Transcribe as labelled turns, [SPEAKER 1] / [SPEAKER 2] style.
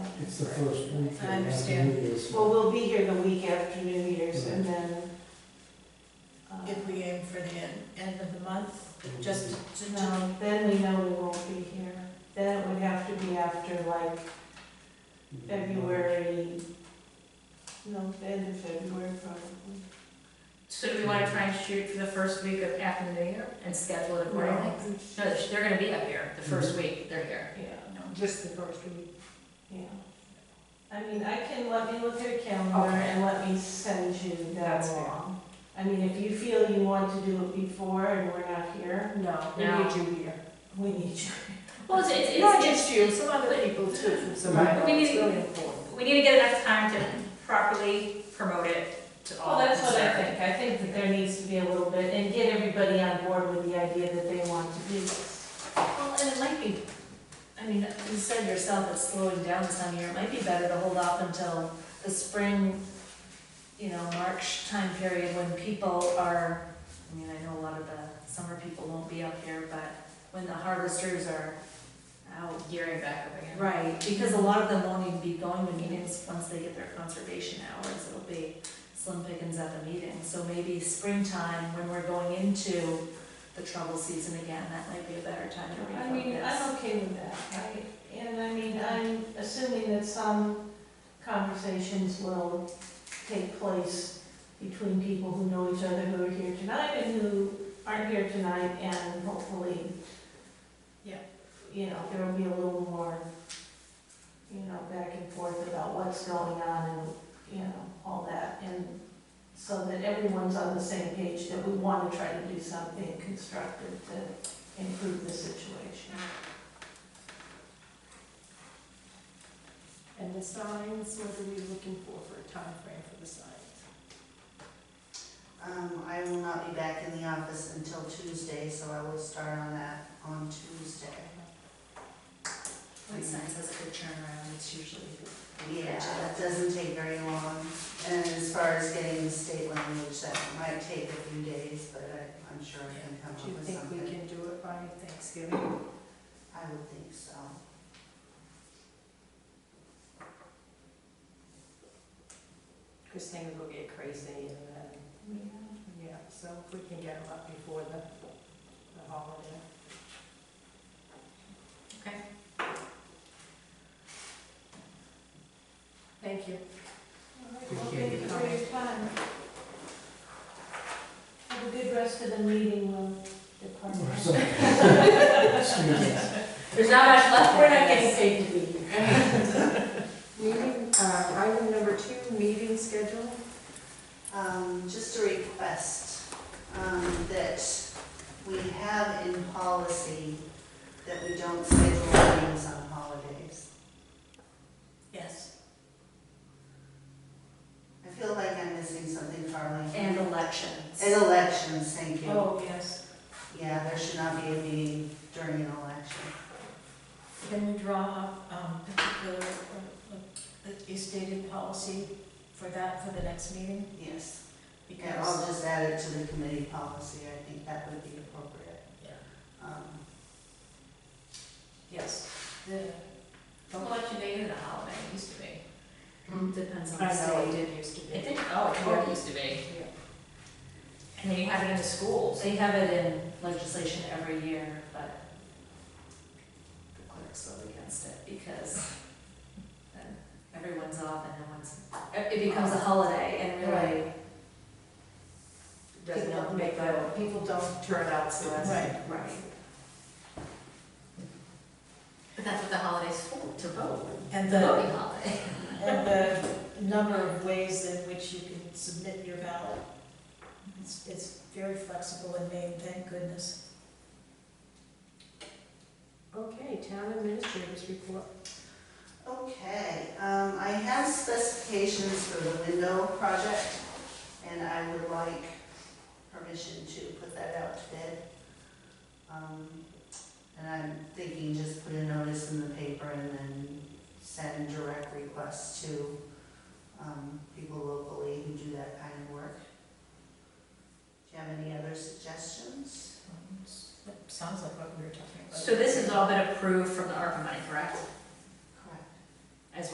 [SPEAKER 1] It's the first week.
[SPEAKER 2] I understand.
[SPEAKER 1] after New Year's.
[SPEAKER 3] Well, we'll be here the week after New Year's and then. uh,
[SPEAKER 2] If we aim for the end, end of the month, just to, to,
[SPEAKER 3] No, then we know we won't be here. Then it would have to be after like February, no, the end of February probably.
[SPEAKER 4] So do we wanna try and shoot for the first week of after the New Year and schedule it accordingly?
[SPEAKER 3] No,
[SPEAKER 4] No, they're- they're gonna be up here, the first week, they're here.
[SPEAKER 3] Yeah,
[SPEAKER 5] Just the first week.
[SPEAKER 3] yeah. I mean, I can, let me look at your calendar and let me send you that
[SPEAKER 5] That's fair.
[SPEAKER 3] along. I mean, if you feel you want to do it before and we're not here,
[SPEAKER 5] No, we
[SPEAKER 4] No.
[SPEAKER 5] need you here.
[SPEAKER 3] we need you.
[SPEAKER 4] Well, it's, it's,
[SPEAKER 5] Not
[SPEAKER 4] it's,
[SPEAKER 5] just you, some other people too from Sabino.
[SPEAKER 4] We need-
[SPEAKER 5] It's really important.
[SPEAKER 4] we need to get enough time to properly promote it to all.
[SPEAKER 3] Well, that's what I
[SPEAKER 4] concerned.
[SPEAKER 3] think. I think that there needs to be a little bit, and get everybody on board with the idea that they want to do this.
[SPEAKER 2] well, and it might be, I mean, you said yourself it's slowing down this time of year, it might be better to hold off until the spring, you know, March time period when people are, I mean, I know a lot of the summer people won't be up here, but when the harvesters are out
[SPEAKER 4] Gearing back up again.
[SPEAKER 2] Right, because a lot of them won't even be going to meetings once they get their conservation hours, it'll be slim pickings at the meeting. So maybe springtime, when we're going into the trouble season again, that might be a better time to refocus.
[SPEAKER 3] I mean, I'm okay with that, right? And I mean, I'm assuming that some conversations will take place between people who know each other, who are here tonight and who aren't here tonight, and hopefully,
[SPEAKER 4] Yeah.
[SPEAKER 3] you know, there will be a little more, you know, back and forth about what's going on and, you know, all that. And so that everyone's on the same page, that we want to try to do something constructive to improve the situation.
[SPEAKER 5] And the signs, what are we looking for for a time frame for the signs?
[SPEAKER 6] Um, I will not be back in the office until Tuesday, so I will start on that on Tuesday.
[SPEAKER 2] White signs has a good turnaround, it's usually. pretty
[SPEAKER 6] Yeah, that
[SPEAKER 2] good.
[SPEAKER 6] doesn't take very long, and as far as getting the state language, that might take a few days, but I, I'm sure I can come
[SPEAKER 5] Do you
[SPEAKER 6] up with
[SPEAKER 5] think we
[SPEAKER 6] something.
[SPEAKER 5] can do it by Thanksgiving?
[SPEAKER 6] I would think so.
[SPEAKER 5] Because things will get crazy and then, yeah, so if we can get them up before the, the holiday.
[SPEAKER 4] Okay.
[SPEAKER 5] Thank you.
[SPEAKER 3] Well, thank you for your time. Have a good rest of the meeting, we'll depart.
[SPEAKER 1] Or something. Excuse me.
[SPEAKER 4] There's not much left.
[SPEAKER 3] We're not getting paid to be here.
[SPEAKER 5] Meeting, uh, item number two, meeting schedule.
[SPEAKER 6] Um, just a request, um, that we have in policy that we don't schedule meetings on holidays.
[SPEAKER 2] Yes,
[SPEAKER 6] I feel like I'm missing something, Carly.
[SPEAKER 2] and elections.
[SPEAKER 6] And elections, thank you.
[SPEAKER 3] Oh, yes.
[SPEAKER 6] Yeah, there should not be a meeting during an election.
[SPEAKER 2] Can you draw up, um, particular, uh, uh, a stated policy for that, for the next meeting?
[SPEAKER 6] Yes. And
[SPEAKER 2] Because.
[SPEAKER 6] I'll just add it to the committee policy, I think that would be appropriate.
[SPEAKER 2] Yeah.
[SPEAKER 6] Um,
[SPEAKER 2] Yes, the,
[SPEAKER 4] Election day is a holiday, it used to be. Mm-hmm.
[SPEAKER 2] depends on
[SPEAKER 5] I
[SPEAKER 2] the
[SPEAKER 5] know it
[SPEAKER 2] state.
[SPEAKER 5] did used to
[SPEAKER 4] I
[SPEAKER 5] be.
[SPEAKER 4] think, oh, it used to be.
[SPEAKER 5] Yeah.
[SPEAKER 4] And then you have it in the schools.
[SPEAKER 2] They have it in legislation every year, but the clerks vote against it because then everyone's off and everyone's, it becomes a holiday and really.
[SPEAKER 5] Doesn't
[SPEAKER 2] People don't
[SPEAKER 5] make
[SPEAKER 2] vote.
[SPEAKER 5] that, people don't turn out, so that's.
[SPEAKER 2] Right.
[SPEAKER 4] But that's what the holiday's for, to vote.
[SPEAKER 7] And
[SPEAKER 4] The
[SPEAKER 7] the,
[SPEAKER 4] voting holiday.
[SPEAKER 7] and the number of ways in which you can submit your ballot. It's, it's very flexible in Maine, thank goodness.
[SPEAKER 5] Okay, town administrators report.
[SPEAKER 6] Okay, um, I have specifications for the window project, and I would like permission to put that out to bid. Um, and I'm thinking just put a notice in the paper and then send direct requests to, um, people locally who do that kind of work. Do you have any other suggestions?
[SPEAKER 7] Sounds like what we were talking
[SPEAKER 4] So this has all been approved from the ARPA money, correct?